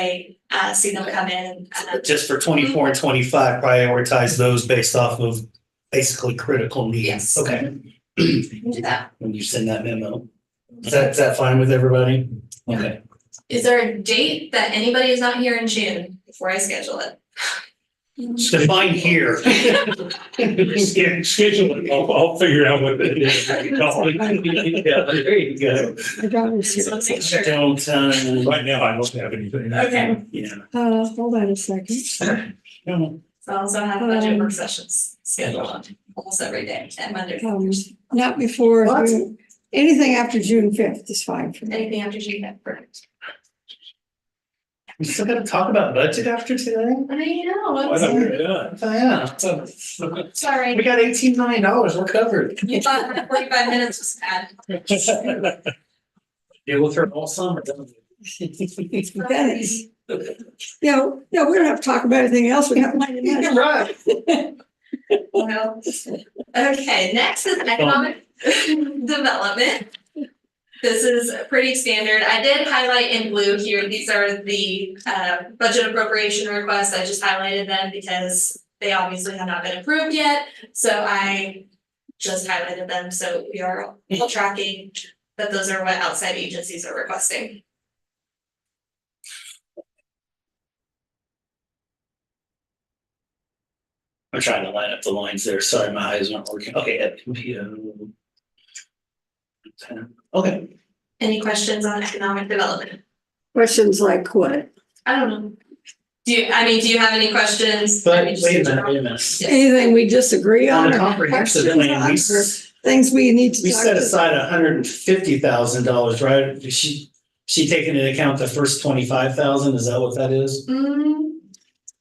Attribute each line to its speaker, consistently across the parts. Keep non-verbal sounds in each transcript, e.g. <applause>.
Speaker 1: I uh see them come in and uh,
Speaker 2: just for twenty-four and twenty-five, prioritize those based off of basically critical needs.
Speaker 1: Yes.
Speaker 2: Okay.
Speaker 1: we can do that.
Speaker 2: When you send that memo, is that, is that fine with everybody? Okay,
Speaker 1: Is there a date that anybody is not here in June before I schedule it?
Speaker 2: it's defined here.
Speaker 3: Sch- Schedule it, I'll, I'll figure out what it is.
Speaker 2: Yeah, there you go.
Speaker 4: I got it
Speaker 1: So
Speaker 4: here.
Speaker 1: make sure.
Speaker 2: Don't, uh,
Speaker 3: Right now, I don't have anything.
Speaker 1: Okay.
Speaker 2: yeah.
Speaker 4: Uh, hold on a second.
Speaker 2: No,
Speaker 1: So I also have budget work sessions scheduled almost every day and Monday.
Speaker 4: Um, Not before,
Speaker 2: What?
Speaker 4: June- anything after June fifth is fine for me.
Speaker 1: Anything after June that perfect.
Speaker 2: We still gotta talk about budget after today?
Speaker 1: I know,
Speaker 3: Why
Speaker 1: I'm
Speaker 3: don't
Speaker 1: sorry.
Speaker 3: we- yeah.
Speaker 2: Oh, yeah. We
Speaker 1: sorry.
Speaker 2: got eighteen million dollars, we're covered.
Speaker 1: You thought forty-five minutes was bad.
Speaker 2: Deal with her all summer. don't we? <laughs>
Speaker 4: Dennis. No, no, we don't have to talk about anything else. We have plenty of
Speaker 2: You're
Speaker 4: minutes.
Speaker 2: right.
Speaker 1: Well, okay, next is economic development. This is pretty standard. I did highlight in blue here, these are the uh budget appropriation requests. I just highlighted them because they obviously have not been approved yet, so I just highlighted them, so we are all tracking that those are what outside agencies are requesting.
Speaker 2: I'm trying to line up the lines there. Sorry, my eyes aren't working. Okay, at computer. Okay,
Speaker 1: Any questions on economic development?
Speaker 4: Questions like what?
Speaker 1: I don't know. Do you, I mean, do you have any questions?
Speaker 2: but
Speaker 1: I mean,
Speaker 2: wait
Speaker 1: just
Speaker 2: a
Speaker 1: in
Speaker 2: minute,
Speaker 1: general.
Speaker 2: wait a minute.
Speaker 4: Anything we disagree
Speaker 2: On
Speaker 4: on
Speaker 2: a
Speaker 4: or
Speaker 2: comprehensive plan, we, s-
Speaker 4: things we need to
Speaker 2: we
Speaker 4: talk
Speaker 2: set
Speaker 4: to-
Speaker 2: aside hundred and fifty thousand dollars, right? Is She, she taking into account the first twenty-five thousand? Is that what that is?
Speaker 1: Mm,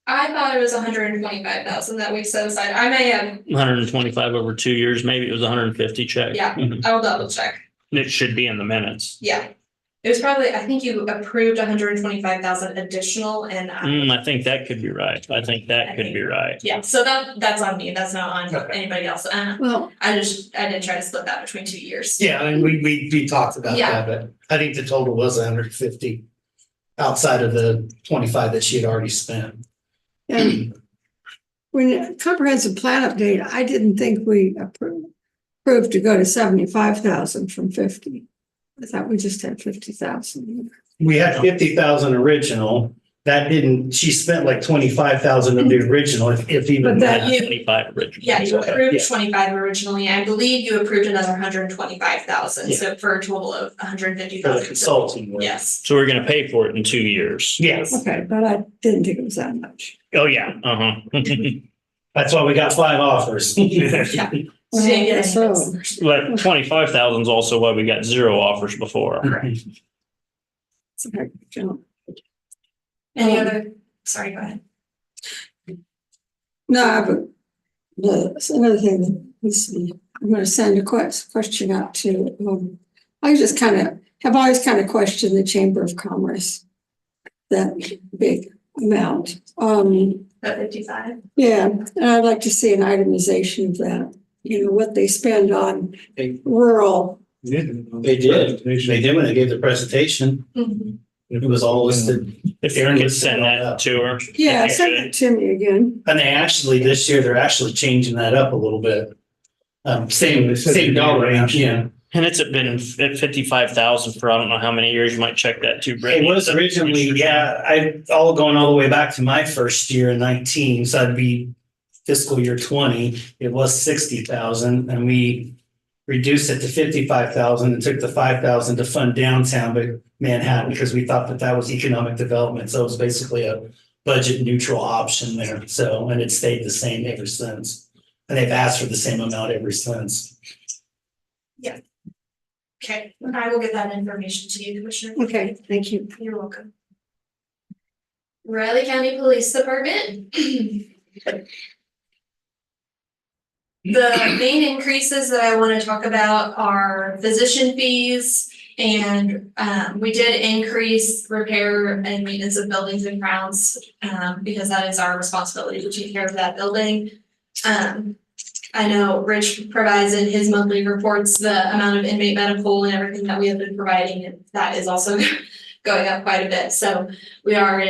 Speaker 1: I thought it was hundred and twenty-five thousand that we set aside. I may have,
Speaker 5: hundred and twenty-five over two years, maybe it was hundred and fifty check.
Speaker 1: yeah, I'll double check.
Speaker 5: <laughs> It should be in the minutes.
Speaker 1: Yeah. It was probably, I think you approved hundred and twenty-five thousand additional and I,
Speaker 5: Mm, I think that could be right. I think that could be
Speaker 2: Mm.
Speaker 5: right.
Speaker 1: yeah, so that, that's on me. That's not on anybody else. Uh,
Speaker 4: Well,
Speaker 1: I just, I didn't try to split that between two years.
Speaker 2: Yeah, and we, we, we talked about
Speaker 1: Yeah.
Speaker 2: that, but I think the total was hundred and fifty outside of the twenty-five that she had already spent.
Speaker 4: and
Speaker 2: <clears throat>
Speaker 4: when comprehensive plan update, I didn't think we approved, approved to go to seventy-five thousand from fifty. I thought we just had fifty thousand.
Speaker 2: We had fifty thousand original. That didn't, she spent like twenty-five thousand of the original, if, if even
Speaker 4: But that
Speaker 2: that.
Speaker 1: You-
Speaker 5: Twenty-five original.
Speaker 1: Yeah, you
Speaker 2: Okay,
Speaker 1: approved
Speaker 2: yeah.
Speaker 1: twenty-five originally. I believe you approved another hundred and twenty-five thousand,
Speaker 2: Yeah.
Speaker 1: so for a total of hundred and fifty
Speaker 2: For
Speaker 1: thousand.
Speaker 2: the consulting work.
Speaker 1: Yes.
Speaker 5: So we're gonna pay for it in two years.
Speaker 2: Yes,
Speaker 4: Okay, but I didn't think it was that much.
Speaker 5: Oh, yeah, uh-huh. <laughs>
Speaker 2: that's why we got five offers.
Speaker 1: Yeah. So you didn't get any
Speaker 4: Well,
Speaker 1: bids.
Speaker 5: But twenty-five thousand is also why we got zero offers before.
Speaker 4: It's a heck of a jump.
Speaker 1: Any
Speaker 4: Um,
Speaker 1: other, sorry, go ahead.
Speaker 4: No, I have a, the, it's another thing that needs to be, I'm gonna send a quest, question out to, um, I just kind of, have always kind of questioned the Chamber of Commerce. That big amount, um,
Speaker 1: That fifty-five?
Speaker 4: yeah, and I'd like to see an itemization of that, you know, what they spend on rural.
Speaker 2: They did. They did when they gave the presentation.
Speaker 1: Mm-hmm.
Speaker 2: It was all listed.
Speaker 5: If you could send that to her.
Speaker 4: Yeah, send it to me again,
Speaker 2: And they actually, this year, they're actually changing that up a little bit. Um, same, same dollar range, yeah.
Speaker 5: And it's been at fifty-five thousand for I don't know how many years. You might check that too,
Speaker 2: It
Speaker 5: Brittany.
Speaker 2: was originally, yeah, I, all going all the way back to my first year in nineteen, so I'd be fiscal year twenty, it was sixty thousand, and we reduced it to fifty-five thousand and took the five thousand to fund downtown, but Manhattan, because we thought that that was economic development, so it was basically a budget neutral option there, so, and it stayed the same ever since. And they've asked for the same amount ever since.
Speaker 1: Okay, I will get that information to you, Commissioner.
Speaker 4: okay, thank you.
Speaker 1: You're welcome. Riley County Police Department. The main increases that I want to talk about are physician fees. And um, we did increase repair and maintenance of buildings and grounds, um, because that is our responsibility to take care of that building. Um, I know Rich provides in his monthly reports the amount of inmate medical <laughs> and everything that we have been providing, and that is also going up quite a bit, so we are in